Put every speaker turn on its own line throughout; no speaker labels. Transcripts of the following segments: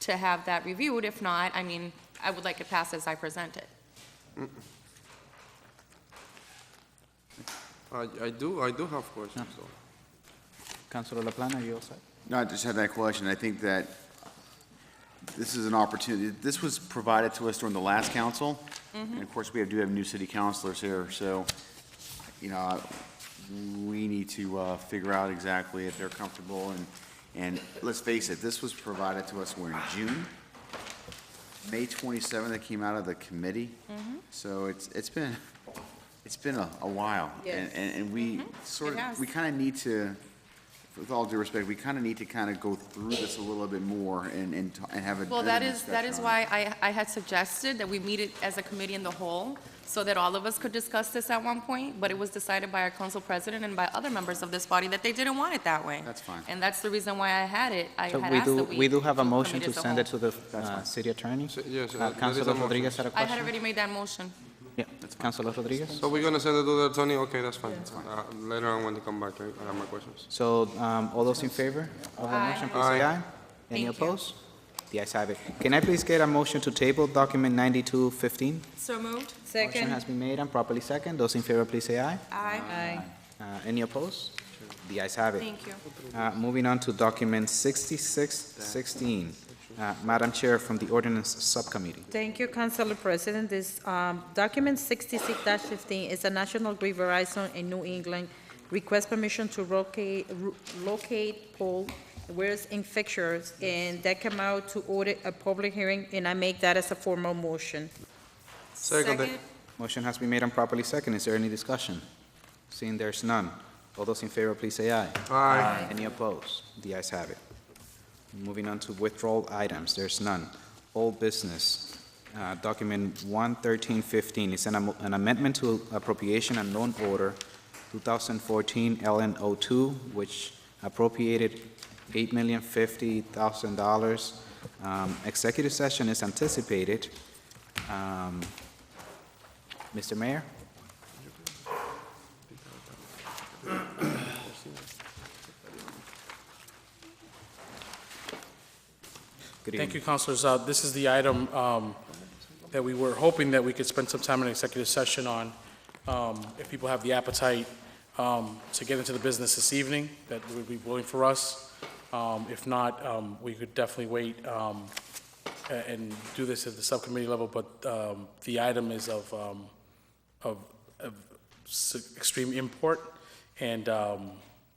to have that reviewed. If not, I mean, I would like it passed as I present it.
I, I do, I do have questions though.
Councilor LaPlante, you all set?
No, I just had that question. I think that this is an opportunity. This was provided to us during the last council.
Mm-hmm.
And of course, we have- do have new city councilors here, so, you know, we need to uh, figure out exactly if they're comfortable. And, and let's face it, this was provided to us, we're in June. May 27th, that came out of the committee.
Mm-hmm.
So it's, it's been, it's been a a while.
Yes. Mm-hmm.
And- And, and we sort
It has.
of, we kind of need to, with all due respect, we kind of need to kind of go through this a little bit more and, and t- and have a.
Well, that
better
is, that
discussion
is
on it.
why I, I had suggested that we meet it as a committee in the whole, so that all of us could discuss this at one point, but it was decided by our council president and by other members of this body that they didn't want it that way.
That's fine.
And that's the reason why I had it, I
So
had
we
asked
do,
that we.
we do have a motion
commit
to
as a
send it
whole.
to the uh, city attorney.
So- yes, uh,
Uh,
there is a
Councilor
motion.
Rodriguez had a
I had
question?
already made that motion.
Yeah, Councilor Rodriguez?
So we're gonna send it to the attorney, okay, that's fine. Uh, Later on when they come back, I I have my questions.
So um, all those in favor of the
Aye.
motion, please say
Aye.
aye. Any
Thank you.
opposed? The ayes have it. Can I please get a motion to table document 9215?
So moved?
Motion has been made and properly second. Those in favor, please say aye.
Aye.
Uh, Any opposed? The ayes have it.
Thank you.
Uh, Moving on to document 6616. Uh, Madam Chair, from the ordinance subcommittee.
Thank you, Councilor President. This um, document 66-15 is a National Grid Verizon in New England request permission to locate, ro- locate pole where's in fixtures, and that come out to order a public hearing, and I make that as a formal motion.
Second.
Motion has been made and properly second. Is there any discussion? Seeing there's none, all those in favor, please say aye.
Aye.
Any opposed? The ayes have it. Moving on to withdrawal items, there's none. Old business, uh, document 11315 is an am- an amendment to appropriation and loan order 2014 LN02, which appropriated $8,050,000. Um, Executive session is anticipated. Um, Mr. Mayor? Good
Thank you,
evening.
councilors. Uh, This is the item um, that we were hoping that we could spend some time in executive session on. Um, If people have the appetite um, to get into the business this evening, that would be willing for us. Um, If not, um, we could definitely wait um, a- and do this at the subcommittee level, but um, the item is of, um, of of s- extreme import, and um,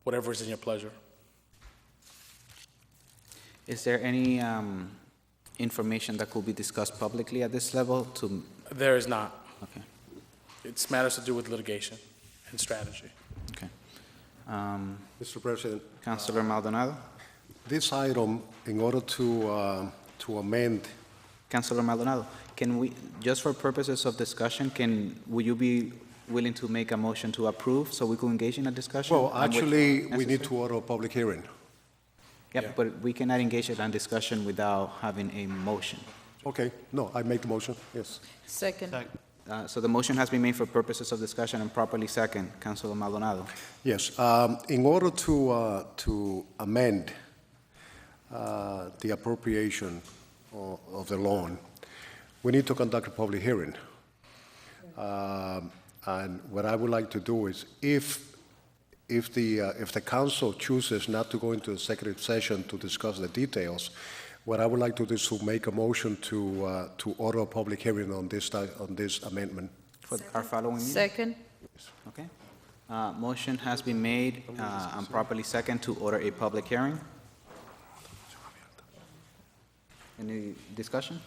whatever is in your pleasure.
Is there any um, information that could be discussed publicly at this level to,
There is not.
okay,
It's matters to do with litigation and strategy.
okay.
Mr. President,
Councilor Maldonado?
this item, in order to, uh, to amend,
Councilor Maldonado, can we, just for purposes of discussion, can, will you be willing to make a motion to approve so we could engage in a discussion?
well,
And with-
actually, we need to
Necessary?
order a public hearing.
Yeah, but we cannot engage in a discussion without having a motion.
Okay, no, I make the motion, yes.
Second.
Uh, So the motion has been made for purposes of discussion and properly second. Councilor Maldonado?
Yes, um, in order to, uh, to amend uh, the appropriation o- of the loan, we need to conduct a public hearing. Um, And what I would like to do is, if, if the, uh, if the council chooses not to go into executive session to discuss the details, what I would like to do is to make a motion to, uh, to order a public hearing on this, ti- on this amendment.
For our following meeting?
Second.
Okay. Uh, Motion has been made uh, and properly second to order a public hearing. Any discussion?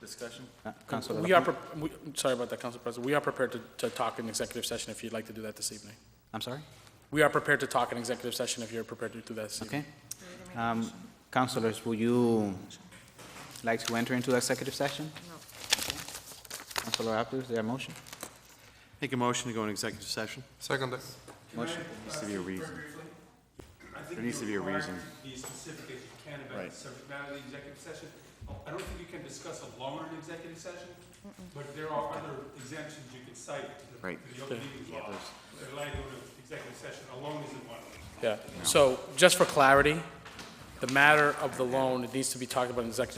Discussion?
Uh, Councilor
We are,
Lapun-
pre- we- sorry about that, Council President. We are prepared to, to talk in executive session if you'd like to do that this evening.
I'm sorry?
We are prepared to talk in executive session if you're prepared to do that this evening.
Okay. Um, Councilors, would you like to enter into executive session? No. Councilor Abdu, is there a motion?
Make a motion to go in executive session.
Second.
Motion?
Needs to be a
Uh,
reason. There needs to be a reason.
be as specific as you can about
Right.
the subject matter of the executive session. I don't think you can discuss a loan in executive session, but there are other exemptions you could cite to the,
Right.
to the open meetings law. That allow you to go to executive session, a loan isn't one of them.
Yeah. So just for clarity, the matter of the loan, it needs to be talked about in executive